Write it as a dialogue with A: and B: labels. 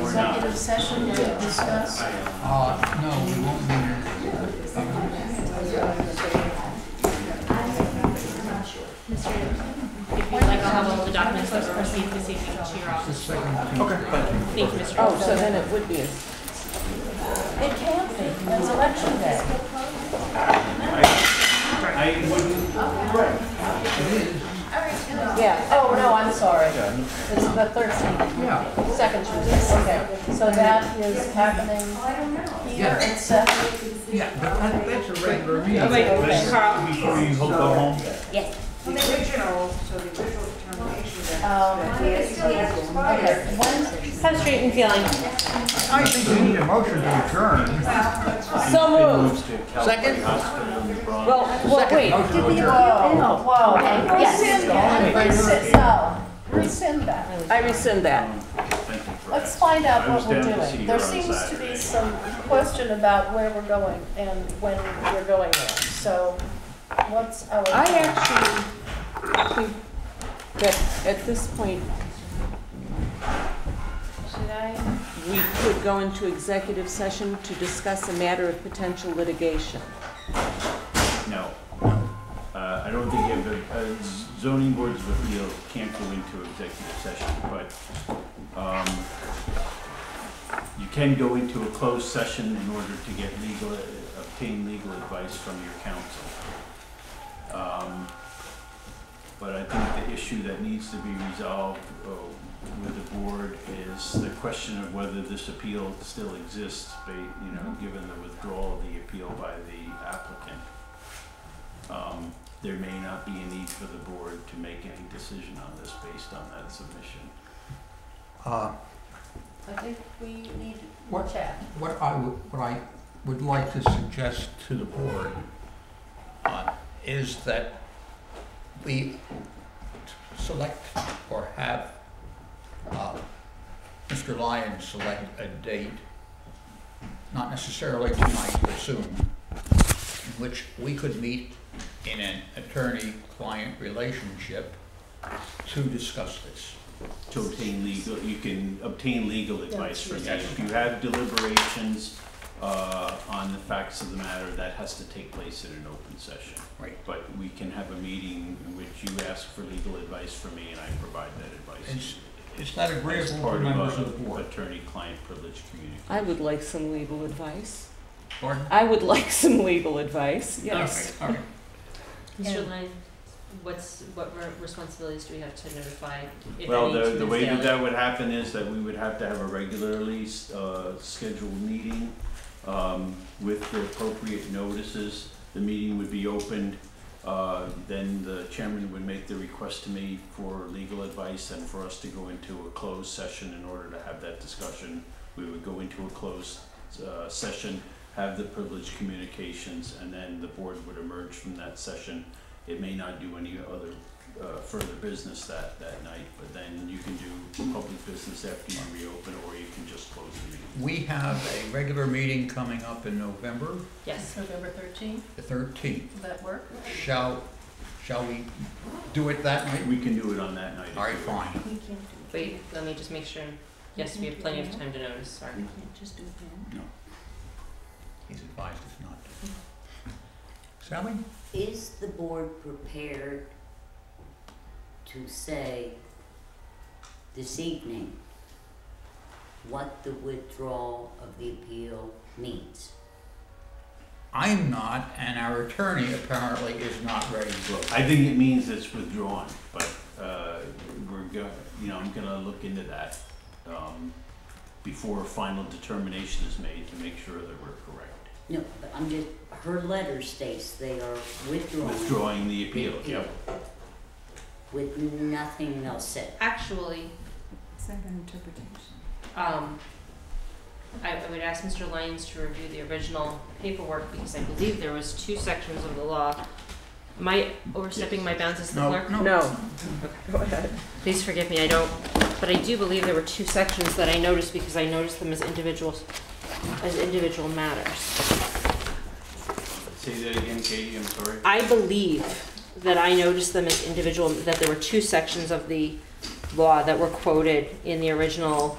A: executive session to discuss?
B: Uh, no, we won't be here.
C: If you'd like, I'll have all the documents that were received this evening to your
B: The
C: office.
B: second. Okay,
C: Thank you, Mr.
D: Oh, so then it would be, a-
A: It can't be, that's election day.
E: I wouldn't,
D: yeah,
A: Oh, no, I'm sorry. It's the thirteenth,
B: Yeah,
D: second Tuesday.
A: okay. So that is happening here
B: Yeah.
A: at seven.
B: yeah, but that- that's a regular meeting.
C: Oh, wait,
E: this
C: Carl,
E: before you go home,
F: The original, so the original determination that.
A: Um, okay, when,
C: how's street and feeling?
B: I think we need a motion to adjourn.
D: So moved.
B: Second?
D: Well, well, wait,
B: Motion to adjourn.
A: whoa, whoa, rescind that, rescind, no, rescind that.
D: I rescind that.
A: Let's find out
E: I was
A: what we're
E: down to see
A: doing.
E: her
A: There
E: on
A: seems to be
E: Saturday.
A: some question about where we're going and when we're going there. So what's our?
D: I actually think that at this point,
A: Should I?
D: we could go into executive session to discuss a matter of potential litigation.
E: no. Uh, I don't think you have, a- uh, zoning boards of appeal can't go into executive session, but, um, you can go into a closed session in order to get legal, obtain legal advice from your counsel. Um, But I think the issue that needs to be resolved uh, with the board is the question of whether this appeal still exists, ba- you know, given the withdrawal of the appeal by the applicant. Um, There may not be a need for the board to make any decision on this based on that submission.
B: Uh,
A: I think we need
B: What?
A: chat.
B: What I would, what I would like to suggest to the board uh, is that we select or have uh, Mr. Lyon select a date, not necessarily tonight, but soon, in which we could meet in an attorney-client relationship to discuss this.
E: To obtain legal, you can obtain legal advice from that.
B: yes.
E: If you have deliberations uh, on the facts of the matter, that has to take place in an open session.
B: Right.
E: But we can have a meeting in which you ask for legal advice from me and I provide that advice.
B: It's, it's not
E: As
B: agreeable to
E: part
B: members
E: of
B: of uh, the
E: a
B: board.
E: attorney-client privilege communication.
D: I would like some legal advice.
B: Pardon?
D: I would like some legal advice, yes.
B: All right, all right.
C: Mr. Lane, what's, what re- responsibilities do we have to notify if
E: Well,
C: any
E: the, the
C: students
E: way that
C: daily?
E: that would happen is that we would have to have a regularly, uh, scheduled meeting, um, with the appropriate notices. The meeting would be opened, uh, then the chairman would make the request to me for legal advice and for us to go into a closed session in order to have that discussion. We would go into a closed, uh, session, have the privileged communications, and then the board would emerge from that session. It may not do any other uh, further business that, that night, but then you can do public business after you reopen, or you can just close the meeting.
B: We have a regular meeting coming up in November
C: Yes,
A: November thirteenth,
B: the thirteenth.
A: would that work?
B: Shall, shall we do it that night?
E: We can do it on that night. if
B: All right,
E: you wish.
B: fine.
A: We can
C: wait, let me just make sure, yes, we have plenty of time to notice, sorry.
A: just do it
B: He's advised us not to. Sally?
G: Is the board prepared to say this evening what the withdrawal of the appeal means?
B: I'm not, and our attorney apparently is not ready to vote.
E: I think it means it's withdrawn, but, uh, we're go, you know, I'm gonna look into that, um, before a final determination is made to make sure that we're correct.
G: No, but I'm just, her letter states they are withdrawing
E: Withdrawing the appeal, yep.
G: with nothing else said.
C: Actually,
F: Is that an interpretation?
C: um, I, I would ask Mr. Lyons to review the original paperwork because I believe there was two sections of the law. Am I overstepping my bounds as the
B: No,
C: clerk?
D: No. Go ahead.
C: Please forgive me, I don't, but I do believe there were two sections that I noticed because I noticed them as individuals, as individual matters.
E: Say that again, Katie, I'm sorry.
C: I believe that I noticed them as individual, that there were two sections of the law that were quoted in the original